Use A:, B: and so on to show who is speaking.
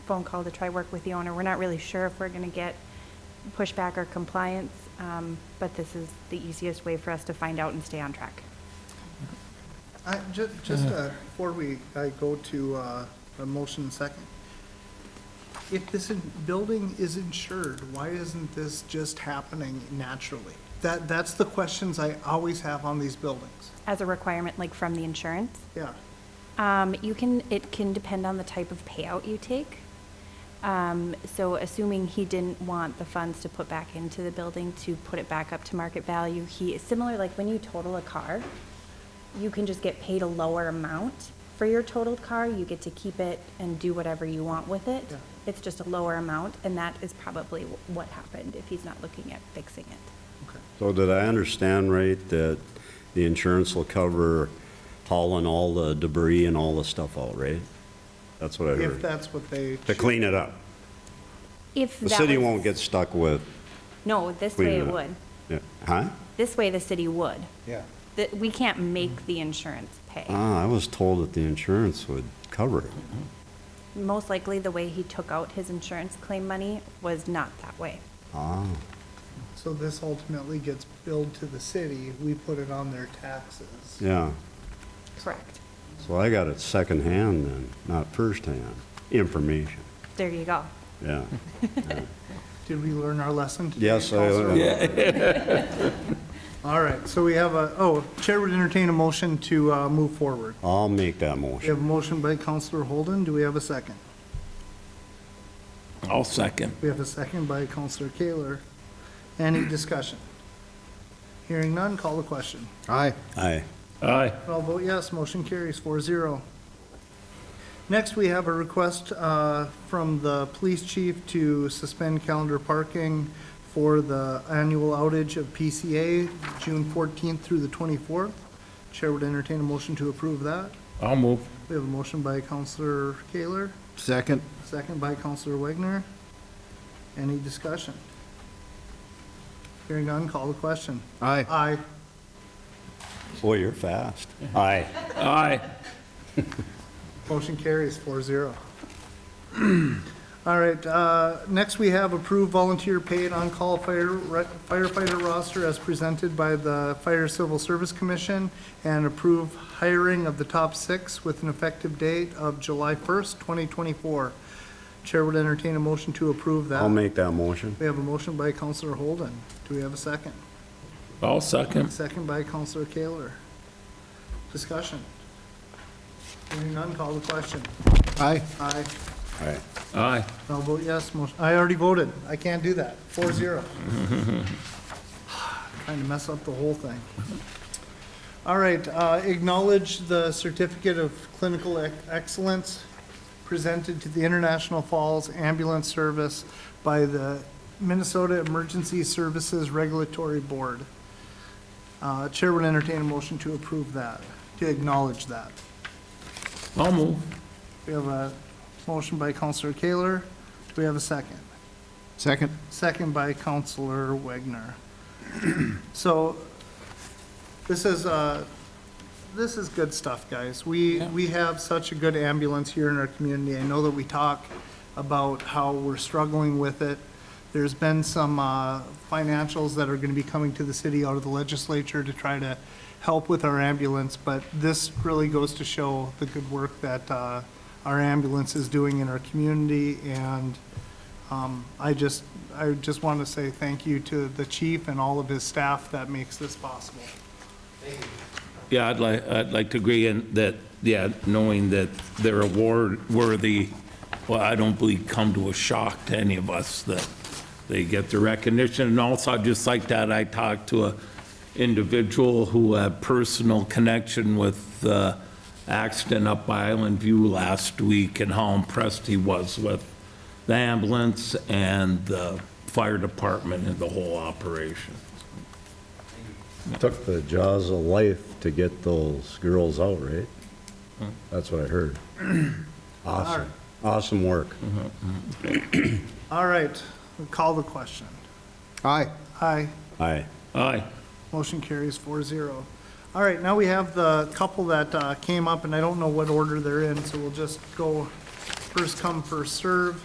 A: phone call to try work with the owner. We're not really sure if we're going to get pushback or compliance, um, but this is the easiest way for us to find out and stay on track.
B: I, ju- just, uh, before we, I go to, uh, a motion second. If this in- building is insured, why isn't this just happening naturally? That, that's the questions I always have on these buildings,
A: As a requirement, like from the insurance,
B: yeah.
A: Um, you can, it can depend on the type of payout you take. Um, so assuming he didn't want the funds to put back into the building to put it back up to market value, he, is similar, like when you total a car, you can just get paid a lower amount for your totaled car, you get to keep it and do whatever you want with it.
B: Yeah.
A: It's just a lower amount, and that is probably wh- what happened if he's not looking at fixing it.
B: Okay.
C: So did I understand right that the insurance will cover hauling all the debris and all the stuff out, right? That's what I
B: If
C: heard.
B: that's what they.
C: To clean it up.
A: If
C: The
A: that
C: city
A: was-
C: won't get stuck with
A: No, this way
C: cleaning
A: it
C: it up.
A: would.
C: Yeah. Huh?
A: This way the city would.
B: Yeah.
A: that we can't make the insurance pay.
C: Ah, I was told that the insurance would cover it.
A: Most likely, the way he took out his insurance claim money was not that way.
C: Ah,
B: So this ultimately gets billed to the city, we put it on their taxes.
C: yeah.
A: Correct.
C: So I got it secondhand then, not firsthand, information,
A: There you go.
C: yeah.
B: Did we learn our lesson today?
C: Yes, I
B: Counselor?
C: learned.
B: All right, so we have a, oh, Chair would entertain a motion to, uh, move forward.
C: I'll make that
B: We have
C: motion.
B: a motion by Counselor Holden, do we have a second?
D: I'll second.
B: We have a second by Counselor Kaler. Any discussion? Hearing none, call the question.
E: Aye.
C: Aye.
D: Aye.
B: I'll vote yes, motion carries four zero. Next, we have a request uh, from the police chief to suspend calendar parking for the annual outage of PCA, June 14th through the 24th. Chair would entertain a motion to approve that.
D: I'll move.
B: We have a motion by Counselor Kaler.
E: Second.
B: Second by Counselor Wagner. Any discussion? Hearing none, call the question.
E: Aye.
B: Aye.
C: Boy, you're fast. Aye.
D: Aye.
B: Motion carries 4-0. All right, uh, next we have approved volunteer paid on-call fire firefighter roster as presented by the Fire Civil Service Commission and approve hiring of the top six with an effective date of July 1st, 2024. Chair would entertain a motion to approve that.
C: I'll make that motion.
B: We have a motion by Counselor Holden. Do we have a second?
D: I'll second.
B: Second by Counselor Kaler. Discussion. Hearing none, call the question.
E: Aye.
B: Aye.
C: Aye.
D: Aye.
B: I'll vote yes, motion, I already voted. I can't do that. Four zero. Trying to mess up the whole thing. All right, uh, acknowledge the Certificate of Clinical Ec- Excellence presented to the International Falls Ambulance Service by the Minnesota Emergency Services Regulatory Board. Uh, Chair would entertain a motion to approve that, to acknowledge that.
D: I'll move.
B: We have a motion by Counselor Kaler. Do we have a second?
E: Second.
B: Second by Counselor Wagner. So this is, uh, this is good stuff, guys. We, we have such a good ambulance here in our community. I know that we talk about how we're struggling with it. There's been some uh, financials that are going to be coming to the city out of the legislature to try to help with our ambulance, but this really goes to show the good work that uh, our ambulance is doing in our community, and um, I just, I just want to say thank you to the chief and all of his staff that makes this possible.
D: Yeah, I'd like, I'd like to agree in that, yeah, knowing that they're award-worthy, well, I don't believe come to a shock to any of us that they get the recognition. And also, I'd just like that, I talked to a individual who had personal connection with the accident up by Island View last week and how impressed he was with the ambulance and the fire department and the whole operation.
C: Took the jaws of life to get those girls out, right? That's what I heard. Awesome, awesome work.
B: All right, we call the question.
E: Aye.
B: Aye,
C: Aye.
D: Aye.
B: motion carries four zero. All right, now we have the couple that uh, came up, and I don't know what order they're in, so we'll just go first come, first serve.